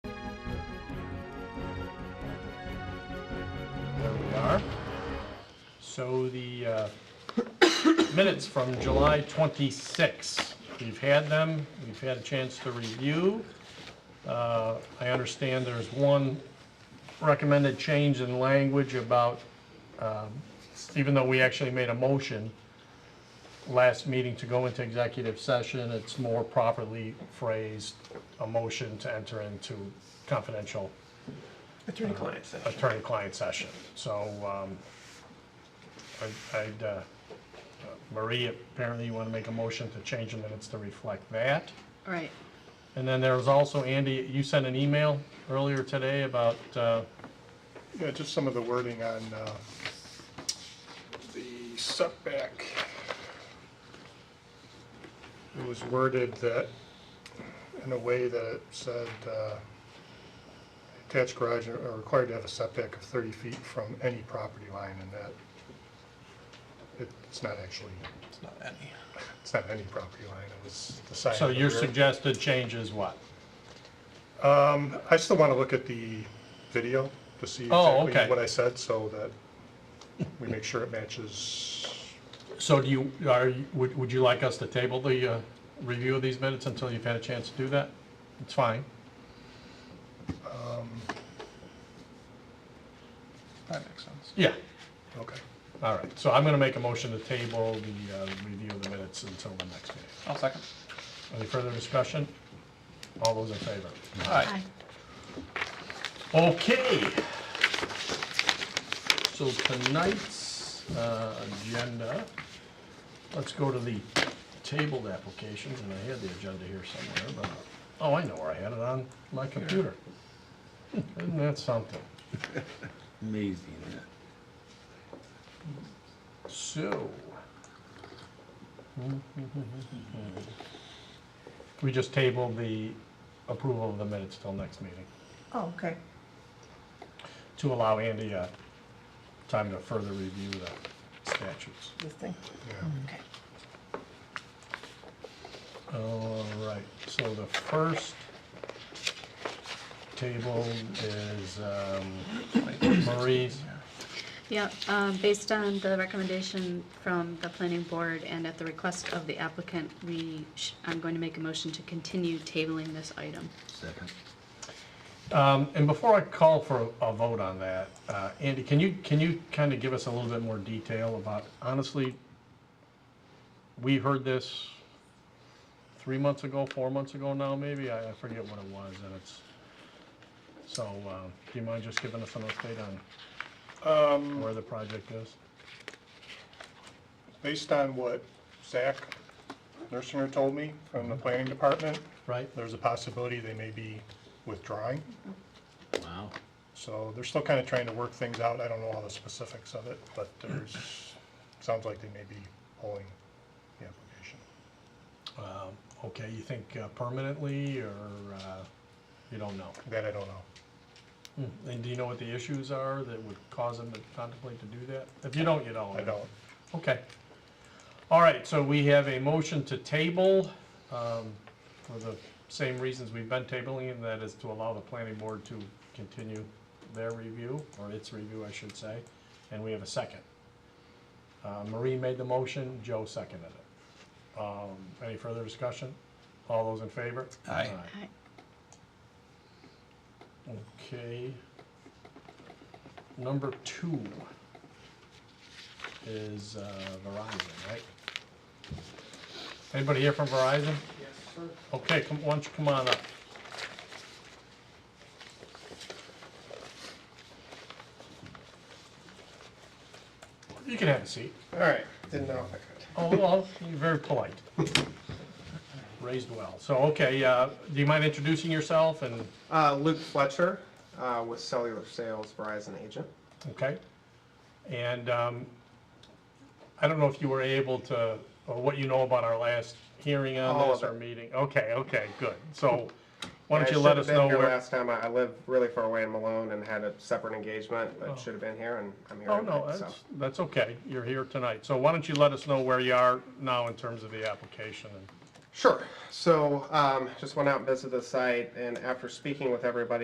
So the uh, minutes from July 26, we've had them, we've had a chance to review. Uh, I understand there's one recommended change in language about, um, even though we actually made a motion last meeting to go into executive session, it's more properly phrased, a motion to enter into confidential Attorney-client session. attorney-client session. So, um, I- I'd, uh, uh, Marie, apparently you want to make a motion to change the minutes to reflect that. Right, And then there was also, Andy, you sent an email earlier today about, uh, Yeah, just some of the wording on uh, the setback. It was worded that, in a way that it said, uh, attached garage are are required to have a setback of 30 feet from any property line, and that it- it's not actually, It's not any. it's not any property line, it was the side. so of the your rear. suggested change is what? Um, I still want to look at the video to see Oh, exactly okay. what I said, so that we make sure it matches. So do you, are, you- would, would you like us to table the, uh, review of these minutes until you've had a chance to do that? It's fine. That makes sense. Yeah, Okay. all right. So I'm going to make a motion to table the, uh, review of the minutes until the next meeting. I'll second. Any further discussion? All those in favor? Aye. aye. Okay. So tonight's uh, agenda, let's go to the tabled applications, and I had the agenda here somewhere, but, oh, I know where I had it on my computer. Isn't that something? Amazing. So. We just tabled the approval of the minutes till next meeting. Oh, okay. to allow Andy uh, time to further review the statutes. This thing. Yeah. Okay. All right, so the first table is um, Marie's. Yeah, um, based on the recommendation from the planning board and at the request of the applicant, we, sh- I'm going to make a motion to continue tabling this item. Second. Um, And before I call for a vote on that, uh, Andy, can you, can you kind of give us a little bit more detail about, honestly, we heard this three months ago, four months ago now, maybe? I I forget what it was, and it's, so uh, do you mind just giving us an update on Um, where the project is? based on what Zach Nursinger told me from Mm-hmm. the planning department, Right? there's a possibility they may be withdrawing. Wow. So they're still kind of trying to work things out. I don't know all the specifics of it, but there's, sounds like they may be pulling the application. Um, Okay, you think uh, permanently, or uh, you don't know? That I don't know. And do you know what the issues are that would cause them to contemplate to do that? If you don't, you don't. I don't. Okay. All right, so we have a motion to table um, for the same reasons we've been tabling, and that is to allow the planning board to continue their review, or its review, I should say. And we have a second. Uh, Marie made the motion, Joe seconded it. Um, Any further discussion? All those in favor? Aye. Aye. Okay. Number two is uh, Verizon, right? Anybody here from Verizon? Yes, sir. Okay, come, why don't you come on up? You can have a seat. All right, didn't know if I could. Oh, well, you're very polite. Raised well. So, okay, uh, do you mind introducing yourself and, Uh, Luke Fletcher uh, with Cellular Sales Verizon agent. okay? And um, I don't know if you were able to, or what you know about our last hearing on All this, of our it. meeting. Okay, okay, good. So why I don't you should let have us been know here where? Last time I, I lived really far away in Malone and had a separate engagement, but Oh. should have been here, and I'm here. Oh, no, tonight, so. that's, that's okay. You're here tonight. So why don't you let us know where you are now in terms of the application? and- Sure. So um, just went out and visited the site, and after speaking with everybody.